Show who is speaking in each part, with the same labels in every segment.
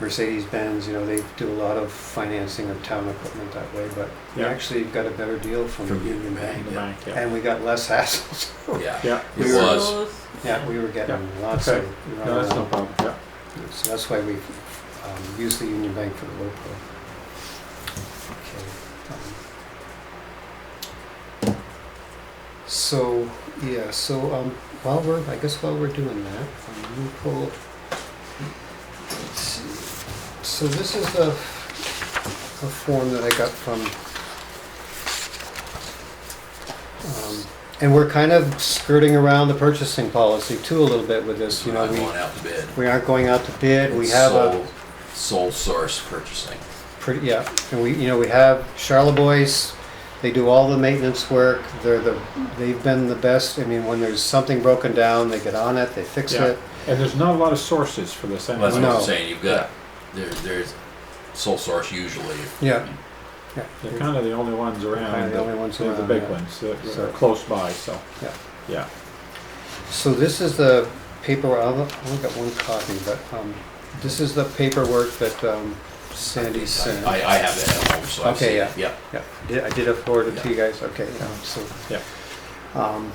Speaker 1: Mercedes-Benz, you know, they do a lot of financing of town equipment that way, but we
Speaker 2: Yeah.
Speaker 1: actually got a better deal from
Speaker 3: From
Speaker 1: Union Bank.
Speaker 2: the bank, yeah.
Speaker 1: And we got less hassles.
Speaker 3: Yeah.
Speaker 2: Yeah,
Speaker 3: It was.
Speaker 1: Yeah, we were getting lots of.
Speaker 2: no, that's no problem, yeah.
Speaker 1: So that's why we um, use the Union Bank for the road pro. Okay. um, So, yeah, so um, while we're, I guess while we're doing that, um, let me pull, let's see. So this is a, a form that I got from, um, and we're kind of skirting around the purchasing policy too a little bit with this, you know,
Speaker 3: I'm
Speaker 1: we.
Speaker 3: going out to bid.
Speaker 1: We aren't going out to bid, we have
Speaker 3: sole,
Speaker 1: a
Speaker 3: sole source purchasing.
Speaker 1: pretty, yeah, and we, you know, we have Charlebois. They do all the maintenance work, they're the, they've been the best, I mean, when there's something broken down, they get on it, they fix
Speaker 2: Yeah.
Speaker 1: it.
Speaker 2: And there's not a lot of sources for this
Speaker 3: Well, that's
Speaker 2: anyway.
Speaker 3: what
Speaker 1: No.
Speaker 3: I'm saying. You've got there, there's sole source usually.
Speaker 1: Yeah. Yeah.
Speaker 2: They're kind of the only ones around.
Speaker 1: Kinda the
Speaker 2: that-
Speaker 1: only ones
Speaker 2: They're the
Speaker 1: around,
Speaker 2: big
Speaker 1: yeah.
Speaker 2: ones that that
Speaker 1: So-
Speaker 2: are close by, so,
Speaker 1: Yeah.
Speaker 2: yeah.
Speaker 1: So this is the paper, I've only got one copy, but, um, this is the paperwork that, um, Sandy sent.
Speaker 3: I, I have that at home, so I've
Speaker 1: Okay,
Speaker 3: seen
Speaker 1: yeah.
Speaker 3: it. Yeah.
Speaker 1: Yeah, did- I did afford it to you guys, okay, yeah, so.
Speaker 2: Yeah.
Speaker 1: Um,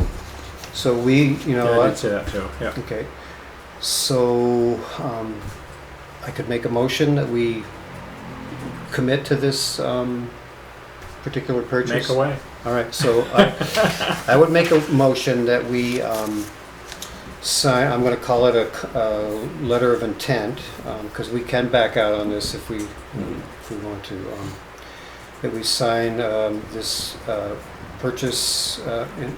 Speaker 1: so we, you know.
Speaker 2: Yeah, I
Speaker 1: I-
Speaker 2: did say that too, yeah.
Speaker 1: Okay, so um, I could make a motion that we commit to this um, particular purchase?
Speaker 2: Make away.
Speaker 1: All right, so I, I would make a motion that we um, sign, I'm gonna call it a, c- a letter of intent, because we can back out on this if we, if we want to. um, That we sign um, this uh, purchase uh, in-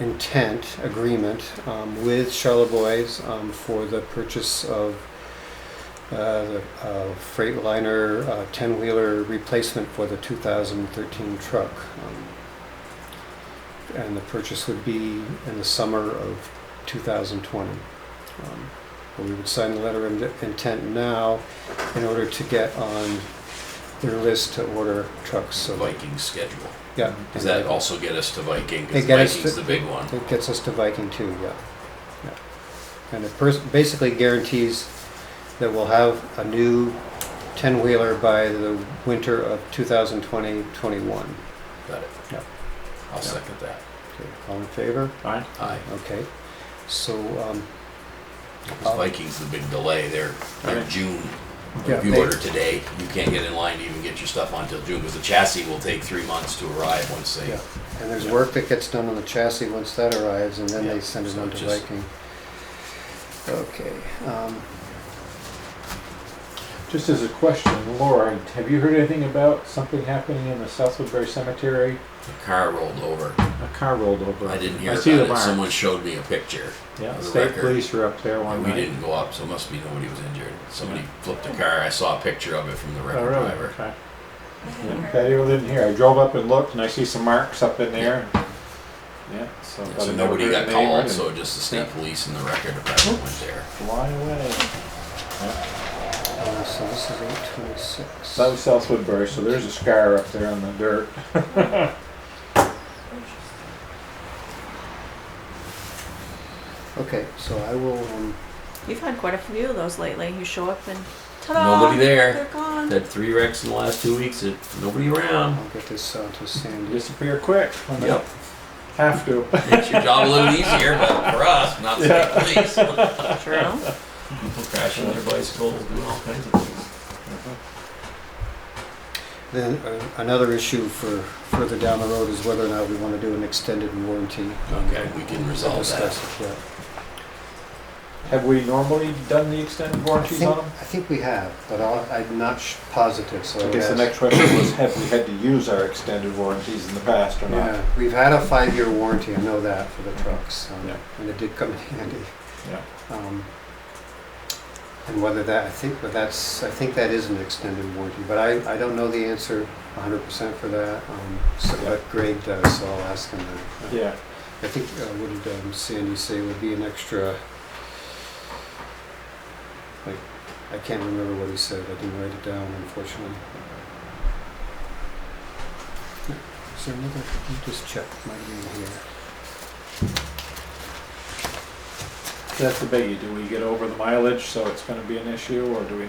Speaker 1: intent agreement um, with Charlevoix um, for the purchase of uh, the uh, Freightliner uh, 10-wheeler replacement for the 2013 truck. Um, And the purchase would be in the summer of 2020. Um, but We would sign the letter of intent now in order to get on their list to order trucks, so.
Speaker 3: Viking schedule.
Speaker 1: Yeah.
Speaker 3: Does that also get us to Viking? 'Cause
Speaker 1: It get us
Speaker 3: Viking's
Speaker 1: to-
Speaker 3: the big one.
Speaker 1: It gets us to Viking too, yeah. yeah. And it pers- basically guarantees that we'll have a new 10-wheeler by the winter of 2020-21.
Speaker 3: Got it.
Speaker 1: Yeah.
Speaker 3: I'll second that.
Speaker 1: Okay, All in favor?
Speaker 2: Aye.
Speaker 3: Aye.
Speaker 1: Okay. So, um,
Speaker 3: 'Cause Viking's the big delay. They're, they're
Speaker 2: Okay.
Speaker 3: June.
Speaker 1: Yeah,
Speaker 3: If you
Speaker 1: they-
Speaker 3: order today, you can't get in line to even get your stuff on until June because the chassis will take three months to arrive once they.
Speaker 1: yeah, and there's work that gets done on the chassis once that arrives, and then they
Speaker 3: Yeah,
Speaker 1: send it
Speaker 3: so
Speaker 1: on to
Speaker 3: just-
Speaker 1: Viking. Okay, um,
Speaker 2: Just as a question, Laura, have you heard anything about something happening in the South Woodbury Cemetery?
Speaker 3: The car rolled over.
Speaker 2: A car rolled over.
Speaker 3: I didn't hear
Speaker 2: I see the
Speaker 3: about it.
Speaker 2: mark.
Speaker 3: Someone showed me a picture.
Speaker 2: Yeah,
Speaker 3: the
Speaker 2: state
Speaker 3: record.
Speaker 2: police were up there one
Speaker 3: And we
Speaker 2: night.
Speaker 3: didn't go up, so it must be nobody was injured. Somebody flipped a car. I saw a picture of it from the
Speaker 2: Oh,
Speaker 3: record
Speaker 2: really?
Speaker 3: driver.
Speaker 2: Okay. Yeah, Patty didn't hear. I drove up and looked, and I see some marks up in there. Yeah, so.
Speaker 3: Yeah,
Speaker 2: but I
Speaker 3: So
Speaker 2: never
Speaker 3: nobody
Speaker 2: heard
Speaker 3: got
Speaker 2: the name
Speaker 3: called,
Speaker 2: and
Speaker 3: so just the state
Speaker 2: Yeah.
Speaker 3: police and the record department went there.
Speaker 2: Fly away.
Speaker 1: uh, so this is 826.
Speaker 2: That was South Woodbury, so there's a scar up there on the dirt.
Speaker 1: Okay, so I will, um,
Speaker 4: You've had quite a few of those lately. You show up and ta-da!
Speaker 3: Nobody
Speaker 4: They're
Speaker 3: there.
Speaker 4: gone.
Speaker 3: Had three wrecks in the last two weeks. and Nobody around.
Speaker 1: I'll get this out to Sandy.
Speaker 2: Disappear quick. when they
Speaker 3: Yep.
Speaker 2: Have to.
Speaker 3: Makes your job a little easier, but for us, not the state police.
Speaker 4: True.
Speaker 3: People crashing their bicycles, doing all kinds of things.
Speaker 1: Then uh, another issue for further down the road is whether or not we want to do an extended warranty.
Speaker 3: Okay, we can resolve
Speaker 1: Discuss
Speaker 3: that.
Speaker 1: it, yeah.
Speaker 2: Have we normally done the extended
Speaker 1: I
Speaker 2: warranties
Speaker 1: think,
Speaker 2: on them?
Speaker 1: I think we have, but I'll- I'm not sh- positive, so.
Speaker 2: I
Speaker 1: I'll
Speaker 2: guess the
Speaker 1: ask.
Speaker 2: next question was, have we had to use our extended warranties in the past or not?
Speaker 1: Yeah, we've had a five-year warranty, I know that, for the trucks, um,
Speaker 2: Yeah.
Speaker 1: and it did come in handy.
Speaker 2: Yeah.
Speaker 1: Um, And whether that, I think, but that's, I think that is an extended warranty, but I, I don't know the answer hundred percent for that. um, So,
Speaker 2: Yeah.
Speaker 1: but Greg does, so I'll ask him that.
Speaker 2: Yeah,
Speaker 1: I think, uh, what did um, Sandy say would be an extra, like, I can't remember what he said, I didn't write it down unfortunately. Is there another, let me just check my name here.
Speaker 2: that's the biggie. Do we get over the mileage, so it's gonna be an issue, or do we